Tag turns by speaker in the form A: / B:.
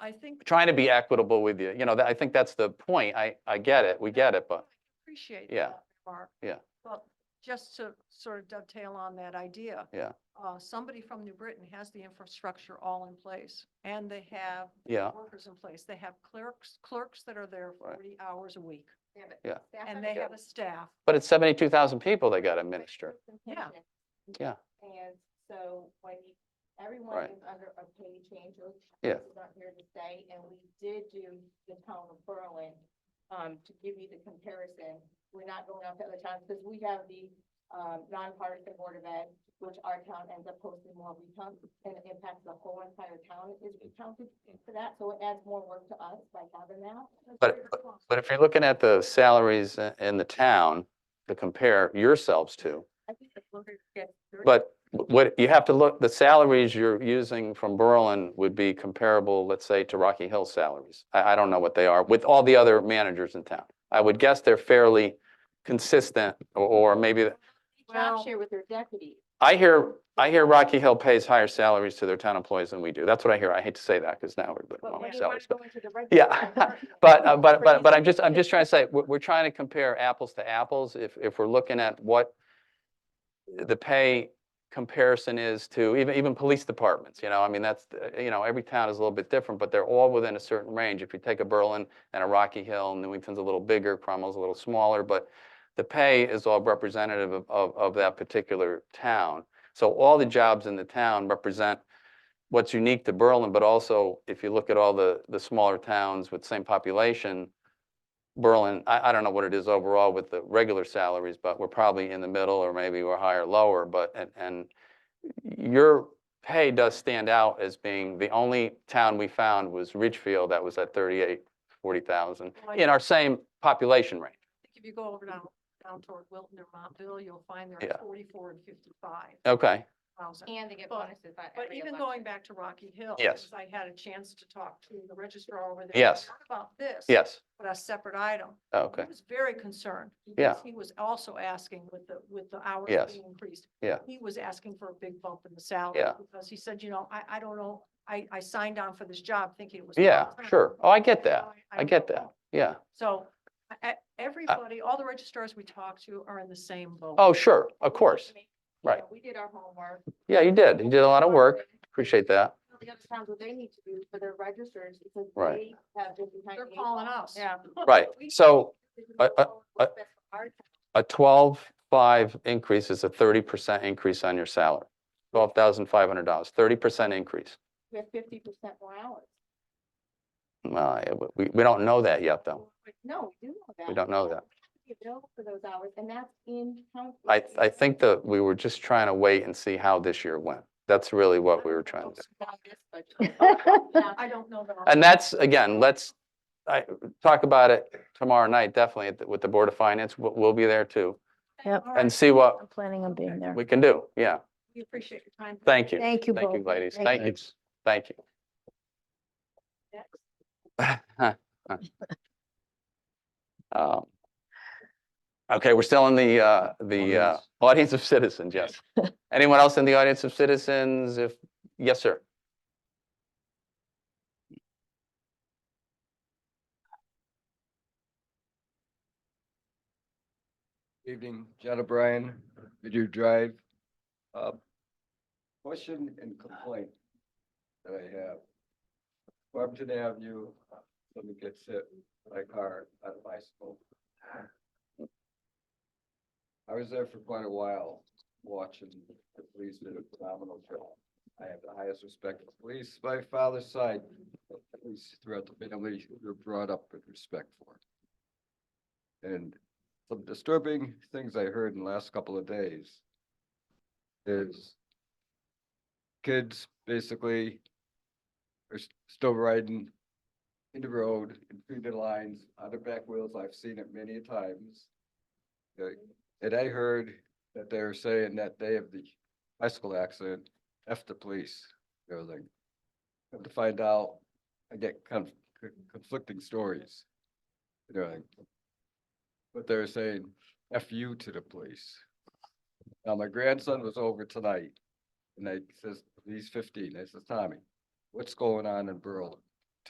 A: I think.
B: trying to be equitable with you. You know, that- I think that's the point. I, I get it. We get it, but
A: Appreciate
B: Yeah.
A: that remark.
B: Yeah.
A: But just to sort of dovetail on that idea.
B: Yeah.
A: Uh, somebody from New Britain has the infrastructure all in place and they have
B: yeah,
A: workers in place. They have clerks, clerks that are there
B: Right.
A: forty hours a week.
B: Yeah.
A: And they have a staff.
B: but it's seventy-two thousand people they got to administer.
A: Yeah.
B: Yeah.
C: And so when you- everyone
B: Right.
C: is under a pay change. order,
B: Yeah.
C: This is not here to stay, and we did do the town of Berlin, um, to give you the comparison. We're not going out to other towns, because we have the, um, nonpartisan board of ed, which our town ends up posting more recounts, and it impacts the whole entire town is recounted for that, so it adds more work to us by having that.
B: But- But if you're looking at the salaries i- in the town to compare yourselves to,
C: I think the voters get thirty-
B: but wh- what, you have to look, the salaries you're using from Berlin would be comparable, let's say, to Rocky Hill salaries. I, I don't know what they are with all the other managers in town. I would guess they're fairly consistent or, or maybe
A: Well-
C: Job share with their deputies.
B: I hear, I hear Rocky Hill pays higher salaries to their town employees than we do. That's what I hear. I hate to say that because now everybody
C: But when
B: wants
C: you
B: salaries.
C: want to
B: But,
C: go into the regular.
B: Yeah,
C: department,
B: but, uh, but, but, but I'm
C: crazy.
B: just, I'm just trying to say, we're, we're trying to compare apples to apples. If, if we're looking at what the pay comparison is to even, even police departments, you know, I mean, that's, uh, you know, every town is a little bit different, but they're all within a certain range. If you take a Berlin and a Rocky Hill, Newington's a little bigger, Cromwell's a little smaller, but the pay is all representative of, of, of that particular town. So all the jobs in the town represent what's unique to Berlin, but also if you look at all the, the smaller towns with same population, Berlin, I, I don't know what it is overall with the regular salaries, but we're probably in the middle or maybe we're higher, lower, but, and, and your pay does stand out as being, the only town we found was Ridgefield that was at 38, 40,000
A: Right.
B: in our same population range.
A: I think If you go over down, down toward Wilton or Montville, you'll find there
B: Yeah.
A: are forty-four and fifty-five
B: Okay,
A: thousand.
C: And they get
A: But-
C: bonuses on
A: But
C: every
A: even
C: election.
A: going back to Rocky Hill.
B: Yes.
A: because I had a chance to talk to the registrar over there.
B: Yes.
A: not About this.
B: yes,
A: But a separate item.
B: okay.
A: He was very concerned.
B: Yeah.
A: because He was also asking with the, with the hours
B: Yes.
A: being increased.
B: Yeah.
A: He was asking for a big bump in the salary.
B: Yeah.
A: Because he said, you know, I, I don't know, I, I signed on for this job thinking it was.
B: Yeah,
A: long-term,
B: sure. Oh, I get
A: so
B: that. I
A: don't
B: get
A: know."
B: that. Uh, Yeah.
A: So, I- I- everybody, all the registrars we talk to are in the same boat.
B: Oh, sure,
C: We
B: of
C: did
B: course.
C: make-
B: Right.
C: you know, We did our homework.
B: Yeah, you did. You did a lot of work. Appreciate that.
C: The other towns, what they need to do for their registers, because
B: Right.
C: they have different. kind
A: They're
C: of
A: calling
C: needs.
A: us.
C: Yeah.
B: Right.
C: We-
B: So
C: we can
B: I-
C: go
B: I-
C: forward with best for our town.
B: a twelve five increase is a thirty percent increase on your salary. Twelve thousand five hundred dollars, thirty percent increase.
C: We have fifty percent more hours.
B: Well, I- Uh, we, we don't know that yet, though.
C: No, we do know that.
B: Oh. We don't know
C: So
B: that.
C: we have to be Available for those hours, and that's in county.
B: I, I think that we were just trying to wait and see how this year went. That's really what we were trying to do.
C: Not this budget. Now,
A: I don't know that.
B: And that's, again, let's, I, talk about it tomorrow night, definitely at the- with the Board of Finance. We'll, we'll be there too.
D: Yep.
A: All
B: And
A: right,
B: see what
D: I'm planning on being there.
B: we can do. Yeah,
A: We appreciate your time.
B: thank you.
D: Thank you both.
B: Thank you, ladies. Thank you. Thank you. Um, Okay, we're still in the, uh, the uh, audience of citizens, yes. Anyone else in the audience of citizens? If, yes, sir.
E: Evening, John O'Brien, Video Drive. Uh, Question and complaint that I have. Barberton Avenue, uh, let me get hit by a car on a bicycle. I was there for quite a while watching the police did a phenomenal job. I have the highest respect for police. My father's side, the police throughout the family, were brought up with respect for. And some disturbing things I heard in the last couple of days is kids basically are s- still riding in the road, in through the lines, on the back wheels. I've seen it many a times. Uh, And I heard that they were saying that day of the bicycle accident, F the police, and everything. Come to find out, I get conf- con- conflicting stories. You know, like, but they're saying F you to the police. Now, my grandson was over tonight and I says, he's fifteen. I says, Tommy, what's going on in Berlin?